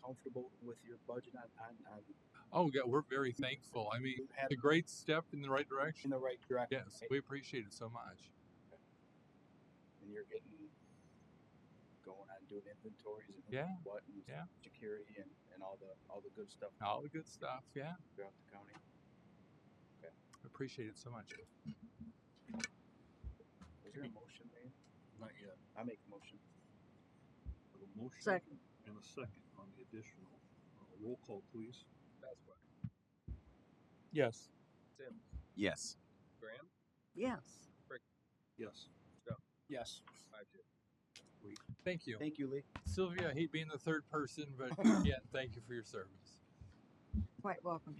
comfortable with your budget on, on, on Oh, yeah, we're very thankful. I you mean, had it's a great step in the right in direction. the right direction, Yes, right? we appreciate it so much. And you're getting going on doing inventories and Yeah, what and yeah. security and, and all the all the good stuff All the good stuff. Yeah, throughout the county. appreciate it so much. Is there a motion made? Not yet. I make a motion. Have a motion Second. And a second on the additional. Uh, Roll call, please. Yes. Yes. Yes. Yes. Yes. Thank you. Thank you, Lee. Sylvia, I hate being the third person, but again, thank you for your service. Quite welcome.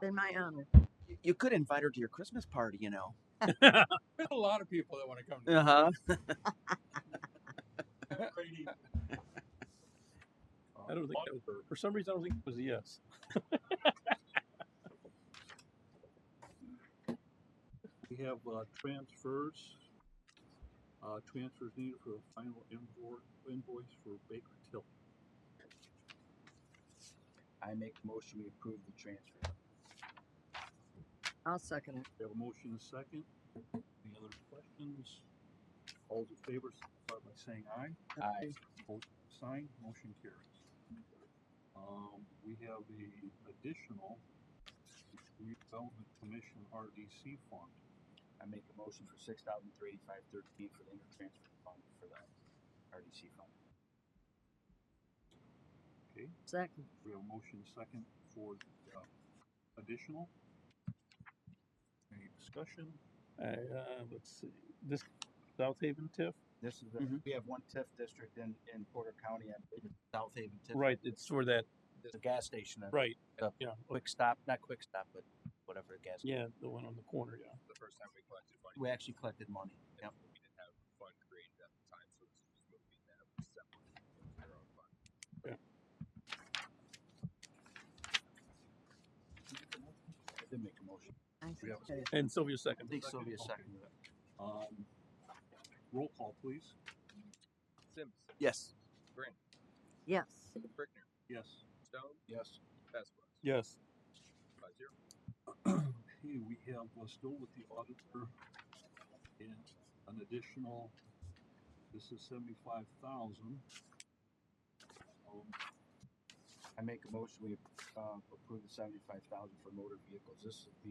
Been my um, honor. You, you could invite her to your Christmas party, you know. There's a lot of people that want to come to Uh huh. I don't think that was, for some reason I don't think it was a yes. We have, uh, transfers. Uh, transfers needed for the final invoice, invoice for Baker Tilly. I make a motion we approve the transfer. I'll second it. We have a motion and a second. Any other questions? All those in favor, signify by saying aye. Aye. Vote sign, motion carries. Um, we have the additional redevelopment commission RDC fund. I make a motion for six thousand three eighty five thirteen for the intertransfer fund for the RDC fund. Okay, Second. we have a motion second for uh, additional. Any discussion? I, uh, let's see, this South Haven TIF, This is the, Mhm. we have one TIF district in, in Porter County and South Haven TIF. right, it's where that, There's a gas station, a right, Yeah. yeah, quick stop, not quick stop, but whatever the gas. yeah, the one on the corner, yeah. The first time we collected money. We actually collected money. Yep. We didn't have fund created at the time, so this was moving that separate their own fund. Yeah. I did make a motion. I We have second it. And Sylvia I second. think Sylvia seconded it. Um, roll call, please. Sims, Yes. Yes. Brickner, Yes. Stone, Yes. Passwords. Yes, Five zero. Okay, we have, uh still with the auditor, and an additional, this is seventy-five thousand. I make a motion, we, um, approve the seventy-five thousand for motor vehicles, this is the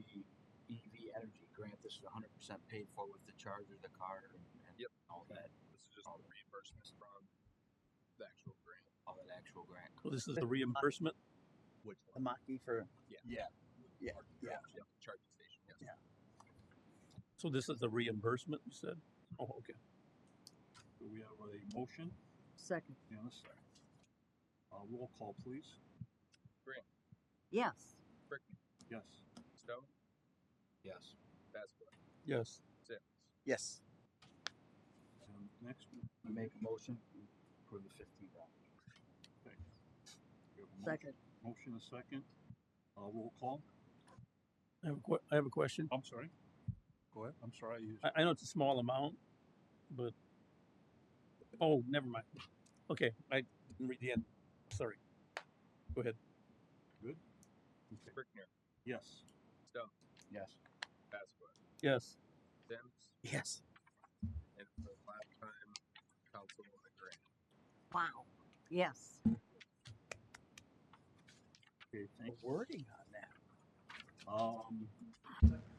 EV energy grant, this is hundred percent paid for with the charger, the car, and and Yep. all that, This is just the reimbursements from the actual grant. all that actual grant. well, this is the reimbursement, Which A Maki for. Yeah, yeah. Charging station, yes. so this is the reimbursement, you said? Oh, okay. Do we have a motion Second. and a second? Uh, roll call, please. Yes. Yes. Stone, Yes. Passwords. Yes, Sims, Yes. And next, I make a motion, we approve the fifteen thousand. we have a mo- Second. Motion and a second. Uh, roll call. I have a que- I have a question. I'm sorry. Go ahead. I'm sorry, I used. I, I know it's a small amount, but, oh, never mind. Okay, I didn't read the end, sorry. Go ahead. Brickner, Yes. Stone, Yes. Passwords. Yes, Sims, Yes. and for the last time, council on the grant. Wow. Yes. Okay, thank you. Wording on that. Um,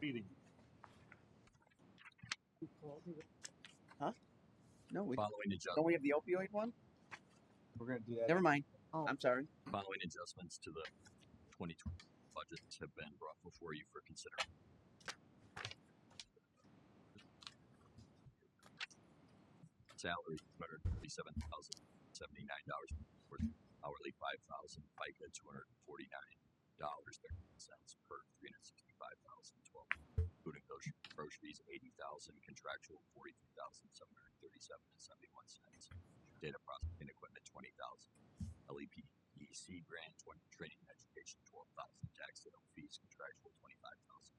meeting. No, we. Following adjustments, Don't we have the opioid one? We're gonna do that. Never mind. Oh. I'm sorry. following adjustments to the twenty twenty budget have been brought before you for consideration. Salary, two hundred thirty-seven thousand seventy-nine dollars, hourly five thousand, FICA two hundred forty-nine dollars thirty cents per three hundred sixty-five thousand twelve. Including grocery, groceries, eighty thousand, contractual forty-three thousand seven hundred thirty-seven and seventy-one cents. Data processing equipment, twenty thousand. E LEPEC grant, twenty, training and education, twelve thousand, tax sale fees, contractual, twenty-five thousand.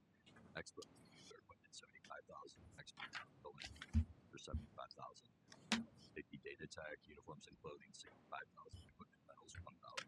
Expert, third equipment, seventy-five thousand, expert building for seventy-five thousand. Safety data tech, uniforms and clothing, sixty-five thousand, equipment metals, one thousand.